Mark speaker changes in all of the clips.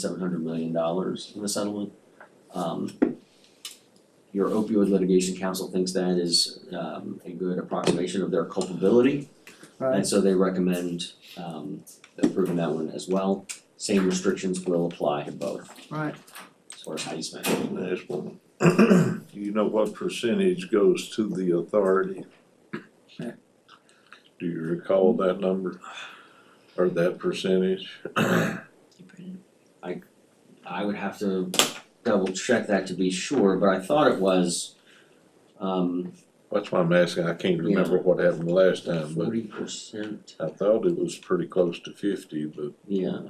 Speaker 1: seven hundred million dollars in the settlement. Um, your opioid litigation council thinks that is um a good approximation of their culpability. And
Speaker 2: Right,
Speaker 1: so they recommend um approving that one as well. Same restrictions will apply to both,
Speaker 2: right,
Speaker 1: sort of how you spend it.
Speaker 3: There's one. You know what percentage goes to the authority? Do you recall that number? Or that percentage?
Speaker 1: I would have to double check that to be sure, but I thought it was um
Speaker 3: That's why I'm asking, I can't remember what happened last time, but
Speaker 1: forty percent,
Speaker 3: I thought it was pretty close to fifty, but
Speaker 1: yeah,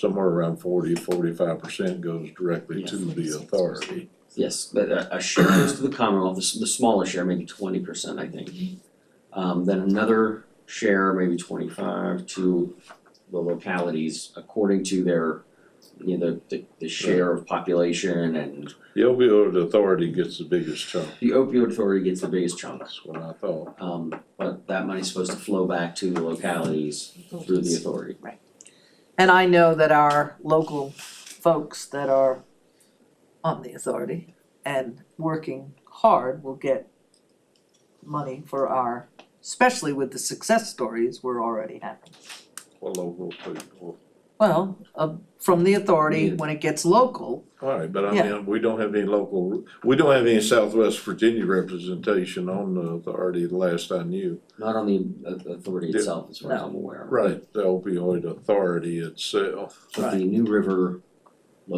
Speaker 3: somewhere around 40, 45 percent goes directly
Speaker 1: Yeah,
Speaker 3: to
Speaker 1: 46.
Speaker 3: the authority.
Speaker 1: Yes, but a a share goes to the Commonwealth, the s- the smaller share, maybe twenty percent, I think. Um then another share, maybe twenty-five to the localities according to their, you know, the the share of population and
Speaker 3: The opioid authority gets the biggest chunk,
Speaker 1: the opioid authority gets the biggest chunk.
Speaker 3: that's what I thought.
Speaker 1: Um but that money's supposed to flow back to the localities through the authority.
Speaker 2: and I know that our local folks that are on the authority and working hard will get money for our, especially with the success stories we're already having.
Speaker 3: Well, oh, local people.
Speaker 2: Well, uh, from the authority, when it gets local,
Speaker 3: Alright, but I
Speaker 2: Yeah.
Speaker 3: mean, we don't have any local, we don't have any Southwest Virginia representation on the authority, the last I knew.
Speaker 1: Not on the au- authority
Speaker 3: Yeah.
Speaker 1: itself, as far as I'm aware.
Speaker 3: Right. The opioid authority itself,
Speaker 1: But the New River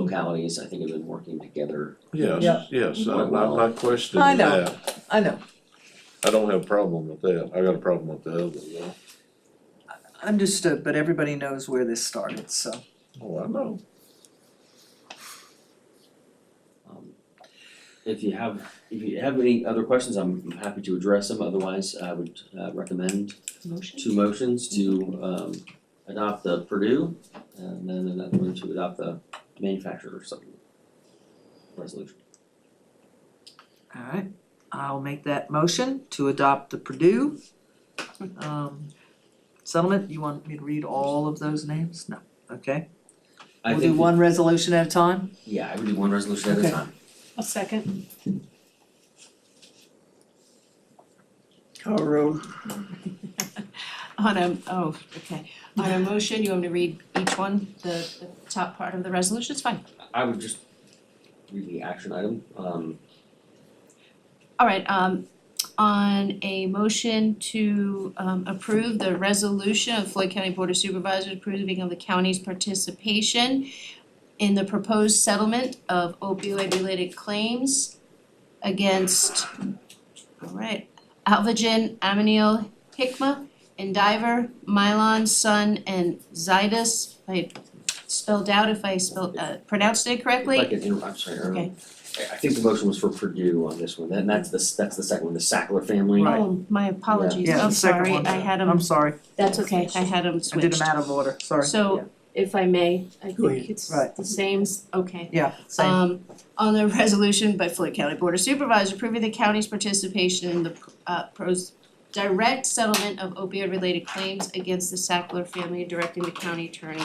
Speaker 1: localities, I think have been working together.
Speaker 2: Yeah.
Speaker 3: yes, yes, I'm I'm not
Speaker 2: I
Speaker 3: questioning
Speaker 2: know.
Speaker 3: that,
Speaker 2: I know,
Speaker 3: I don't have a problem with that, I got a problem with the other, though.
Speaker 2: understood, but everybody knows where this started, so.
Speaker 3: Oh, I know,
Speaker 1: Um, If you have, if you have any other questions, I'm I'm happy to address them, otherwise I would uh recommend
Speaker 4: Motion?
Speaker 1: two motions to um adopt the Purdue and then another one to adopt the manufacturer supplement resolution.
Speaker 2: Alright, I'll make that motion to adopt the Purdue um settlement, you want me to read all of those names? No, okay,
Speaker 1: I
Speaker 2: we'll
Speaker 1: think,
Speaker 2: do
Speaker 1: that-
Speaker 2: one resolution at a time,
Speaker 1: yeah, I would do one resolution at a
Speaker 2: Okay.
Speaker 1: time.
Speaker 4: A second.
Speaker 5: Car road,
Speaker 4: On a, oh, okay. On a motion, you want me to read each one, the, the top part of the resolution, it's fine.
Speaker 1: I would just read the action item, um
Speaker 4: All right, um, on a motion to, um, approve the resolution of Floyd County Board of Supervisors approving of the county's participation in the proposed settlement of opioid-related claims against, all right, Alvogen, Amneal, Hikma, Endiver, Mylon, Sun, and Zydus. I spelled out if I spelled, uh, pronounced it correctly.
Speaker 1: If I could interrupt, I'm sorry, Erin.
Speaker 4: Okay.
Speaker 1: I I think the motion was for Purdue on this one, and that's the, s- that's the second one, the Sackler family.
Speaker 2: Right.
Speaker 4: Oh, my apologies,
Speaker 2: yeah,
Speaker 4: I'm
Speaker 2: the second
Speaker 4: sorry,
Speaker 2: one.
Speaker 4: I had them,
Speaker 2: I'm sorry,
Speaker 4: that's okay, I had them
Speaker 2: I
Speaker 4: switched.
Speaker 2: did them out of order, sorry.
Speaker 4: So if I may, I
Speaker 5: Go
Speaker 4: think
Speaker 5: ahead.
Speaker 4: it's
Speaker 2: Right.
Speaker 4: the same, s- okay.
Speaker 2: Yeah, same,
Speaker 4: Um, on the resolution by Floyd County Board of Supervisors approving the county's participation in the uh pros direct settlement of opioid related claims against the Sackler family and directing the county attorney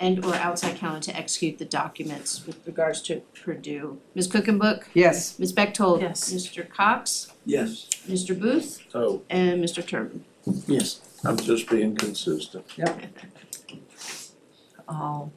Speaker 4: and or outside county to execute the documents with regards to Purdue. Ms. Cookenbook,
Speaker 2: yes,
Speaker 4: Ms. Bechtold.
Speaker 2: Yes.
Speaker 4: Mr. Cox,
Speaker 5: yes,
Speaker 4: Mr. Booth,
Speaker 3: so
Speaker 4: and Mr. Turbin.
Speaker 5: yes.
Speaker 3: I'm just being consistent.
Speaker 2: I'll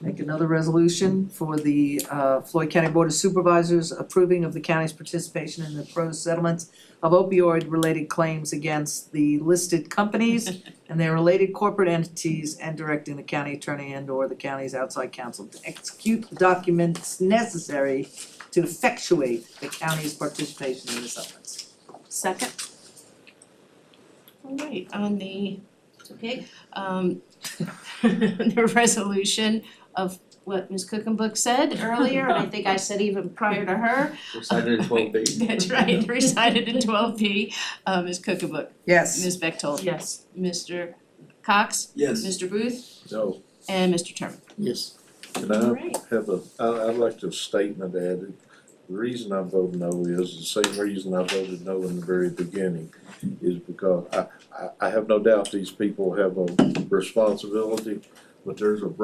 Speaker 2: make another resolution for the uh Floyd County Board of Supervisors approving of the county's participation in the pro settlements of opioid related claims against the listed companies and their related corporate entities and directing the county attorney and or the county's outside counsel to execute the documents necessary to effectuate the county's participation in the settlements.
Speaker 4: Second. All right, on the, it's okay, um, the resolution of what Ms. Cookenbook said earlier, and I think I said even prior to her,
Speaker 1: We're cited in twelve B.
Speaker 4: that's right, recited in twelve P, uh, Ms. Cookenbook,
Speaker 2: Yes,
Speaker 4: Ms. Bechtold,
Speaker 6: Yes,
Speaker 4: Mr. Cox,
Speaker 5: Yes.
Speaker 4: Mr. Booth,
Speaker 3: So,
Speaker 4: and Mr. Turner.
Speaker 5: Yes.
Speaker 3: can
Speaker 1: Uh,
Speaker 3: I have a, I, I'd like to have a statement added. The reason I voted no is the same reason I voted no in the very beginning, is because I, I, I have no doubt these people have a responsibility, but there's a broad